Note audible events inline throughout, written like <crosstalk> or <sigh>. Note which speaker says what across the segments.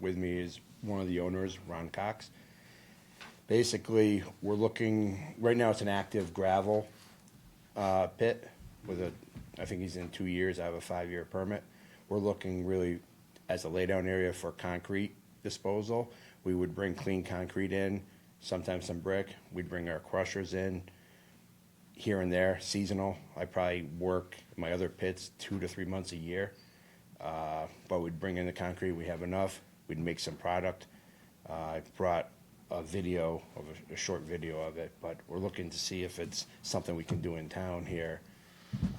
Speaker 1: with me is one of the owners, Ron Cox. Basically, we're looking, right now it's an active gravel uh, pit with a, I think he's in two years, I have a five-year permit. We're looking really as a laydown area for concrete disposal. We would bring clean concrete in, sometimes some brick. We'd bring our crushers in here and there, seasonal. I probably work my other pits two to three months a year. Uh, but we'd bring in the concrete, we have enough, we'd make some product. Uh, I brought a video of, a- a short video of it, but we're looking to see if it's something we can do in town here.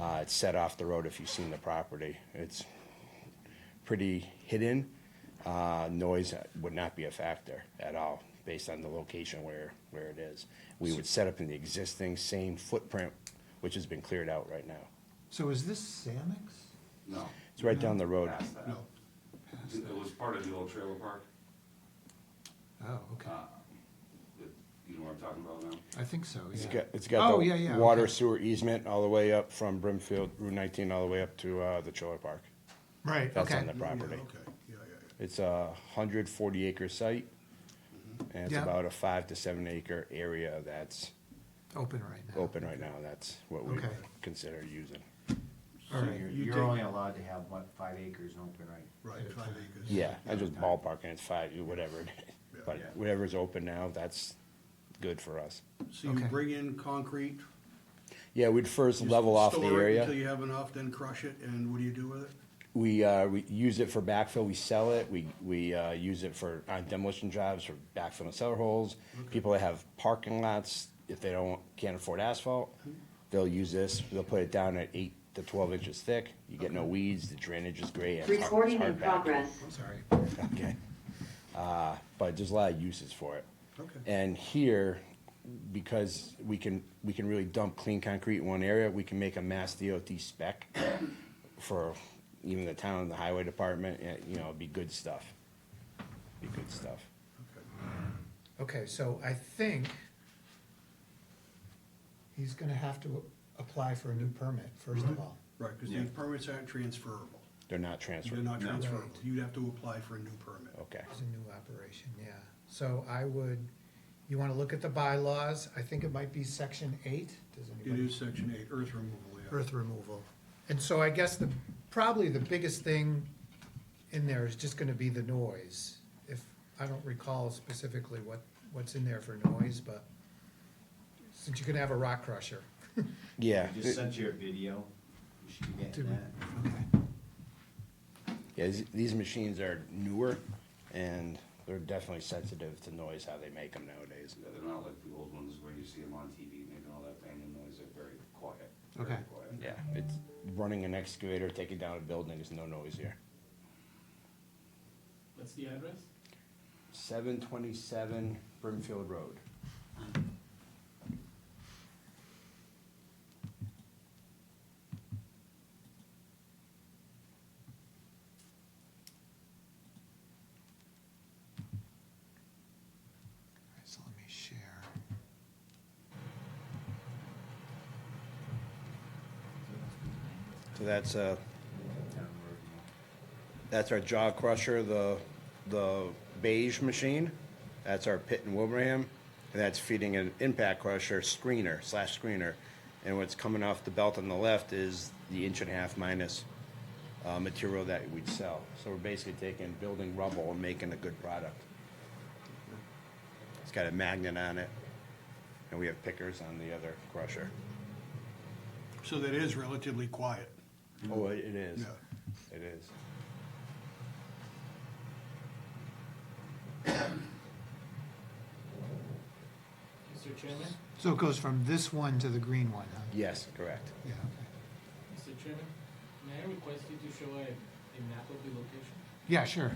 Speaker 1: Uh, it's set off the road if you've seen the property. It's pretty hidden. Uh, noise would not be a factor at all based on the location where, where it is. We would set up in the existing same footprint, which has been cleared out right now.
Speaker 2: So is this Samex?
Speaker 3: No,
Speaker 1: It's right down the road.
Speaker 3: past that.
Speaker 2: No.
Speaker 3: It was part of the old trailer park.
Speaker 2: Oh, okay.
Speaker 3: uh, that- You know what I'm talking about now?
Speaker 2: I think so,
Speaker 1: Uh, It's
Speaker 2: yeah.
Speaker 1: got, it's got
Speaker 2: Oh,
Speaker 1: the
Speaker 2: yeah, yeah,
Speaker 1: water
Speaker 2: okay.
Speaker 1: sewer easement all the way up from Brimfield Route 19 all the way up to uh, the Chiller Park.
Speaker 2: Right,
Speaker 1: That's
Speaker 2: okay.
Speaker 1: on the property.
Speaker 4: Yeah, okay, yeah, yeah,
Speaker 1: It's a 140 acre site, and it's
Speaker 2: Yeah.
Speaker 1: about a five to seven acre area that's
Speaker 2: Open right now.
Speaker 1: open right now. That's what we
Speaker 2: Okay.
Speaker 1: consider using.
Speaker 2: All
Speaker 5: So
Speaker 2: right,
Speaker 5: you're,
Speaker 4: you
Speaker 5: you're
Speaker 4: dig-
Speaker 5: only allowed to have, what, five acres open, right?
Speaker 4: <laughs> yeah, right, five acres.
Speaker 1: Yeah, I just ballparking. It's five, whatever. it is.
Speaker 4: Yeah.
Speaker 1: But
Speaker 5: Yeah.
Speaker 1: whatever's open now, that's good for us.
Speaker 4: So you
Speaker 2: Okay.
Speaker 4: bring in concrete?
Speaker 1: Yeah, we'd first
Speaker 4: you
Speaker 1: level off the
Speaker 4: store it
Speaker 1: area.
Speaker 4: Until you have enough, then crush it, and what do you do with it?
Speaker 1: We, uh, we use it for backfill, we sell it, we, we, uh, use it for, on demolition jobs, for backfilling cellar holes. People that have parking lots, if they don't, can't afford asphalt, they'll use this, they'll put it down at eight to twelve inches thick. You get no weeds, the drainage is great. and it's hard- it's
Speaker 6: Recording in
Speaker 1: hard backfill.
Speaker 6: progress.
Speaker 2: sorry.
Speaker 1: Okay. Uh, but there's a lot of uses for it.
Speaker 4: Okay.
Speaker 1: And here, because we can, we can really dump clean concrete in one area, we can make a mass DOT spec for even the town, the highway department, and, you know, it'd be good stuff. Be good stuff.
Speaker 2: Okay, so I think he's gonna have to apply for a new permit, first
Speaker 1: Mm-hmm.
Speaker 2: of all.
Speaker 4: Right, because these permits aren't transferable.
Speaker 1: They're not
Speaker 4: They're
Speaker 1: transferred.
Speaker 4: not transferable.
Speaker 2: Right.
Speaker 4: You'd have to apply for a new permit.
Speaker 1: Okay.
Speaker 2: It's a new operation, yeah. So I would, you wanna look at the bylaws? I think it might be section eight, does
Speaker 4: It
Speaker 2: anybody?
Speaker 4: is section eight, earth removal, yeah.
Speaker 2: earth removal. And so I guess the, probably the biggest thing in there is just gonna be the noise. If, I don't recall specifically what, what's in there for noise, but since you're gonna have a rock crusher.
Speaker 1: Yeah,
Speaker 5: I just sent you a video, you should be
Speaker 2: Do
Speaker 5: getting
Speaker 2: we-
Speaker 5: that.
Speaker 1: yeah, these- these machines are newer and they're definitely sensitive to noise, how they make them nowadays.
Speaker 3: Yeah, They're not like the old ones where you see them on TV making all that banging noise. They're very quiet. very
Speaker 2: Okay.
Speaker 3: quiet.
Speaker 1: Yeah, it's, running an excavator, taking down a building is no noise here.
Speaker 7: What's the address?
Speaker 1: Seven twenty-seven Brimfield Road.
Speaker 2: So let me share.
Speaker 1: So that's uh
Speaker 5: Town road.
Speaker 1: that's our jaw crusher, the, the beige machine. That's our pit in Wilbraham, and that's feeding an impact crusher screener slash screener. And what's coming off the belt on the left is the inch and a half minus uh, material that we'd sell. So we're basically taking building rubble and making a good product. It's got a magnet on it, and we have pickers on the other crusher.
Speaker 4: So that is relatively quiet.
Speaker 1: Oh, it it is.
Speaker 4: Yeah.
Speaker 1: It is.
Speaker 7: Mr. Chairman?
Speaker 2: So it goes from this one to the green one, huh?
Speaker 1: Yes, correct.
Speaker 2: Yeah, okay.
Speaker 7: Mr. Chairman, may I request you to show a, a map of the location?
Speaker 2: Yeah, sure.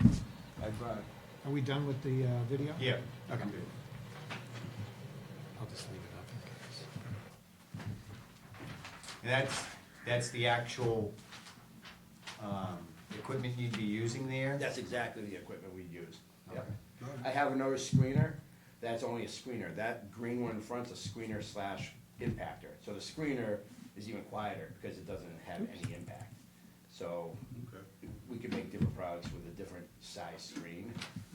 Speaker 1: I brought it.
Speaker 2: Are we done with the, uh, video?
Speaker 5: Yeah.
Speaker 2: Okay. I'll just leave it up in
Speaker 5: And that's, that's the actual, um, equipment you'd be using there?
Speaker 1: That's exactly the equipment we use. Yep.
Speaker 4: Okay.
Speaker 1: I have another screener, that's only a screener, that green one in front's a screener slash impactor. So the screener is even quieter because it doesn't have any impact. So
Speaker 4: Okay.
Speaker 1: we could make different products with a different size screen.